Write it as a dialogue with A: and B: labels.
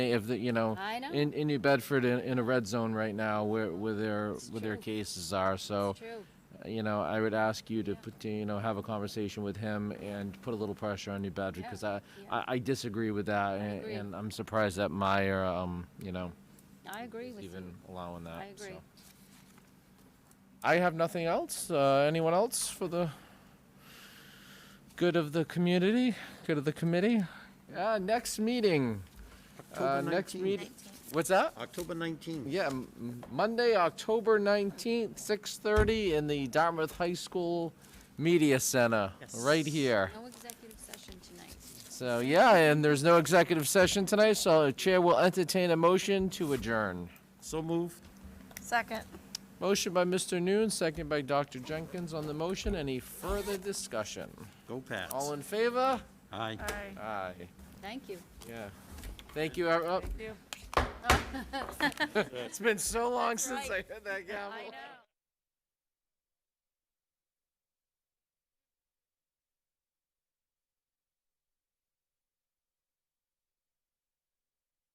A: if the, you know,
B: I know.
A: in, in New Bedford in, in a red zone right now where, where their,
B: It's
A: where their
B: true.
A: cases are. So,
B: It's true.
A: you know, I would ask you to put, to, you know, have a conversation with him and put a little pressure on New Bedford
B: Yeah,
A: because I,
B: yeah.
A: I, I disagree with that. and-
B: agree.
A: And I'm surprised that Meyer, um, you know,
B: I agree with you.
A: even allowing that.
B: I agree.
A: so. I have nothing else. Uh, anyone else for the good of the community, good of the committee? Uh, next meeting. Uh,
C: October
A: next
C: 19th.
A: meeting. What's that?
C: October 19th.
A: Yeah, m- m- Monday, October 19th, 6:30 in the Dartmouth High School Media Center, right here.
B: No executive session tonight.
A: So, yeah, and there's no executive session tonight, so the Chair will entertain a motion to adjourn.
C: So moved.
D: Second.
A: Motion by Mr. Noon, second by Dr. Jenkins on the motion. Any further discussion?
C: Go Pats.
A: All in favor?
C: Aye.
D: Aye.
A: Aye,
B: Thank you.
A: yeah. Thank you, ev- oh,
D: Thank you.
A: it's been so long since I
B: right.
A: heard that gavel.
B: I know.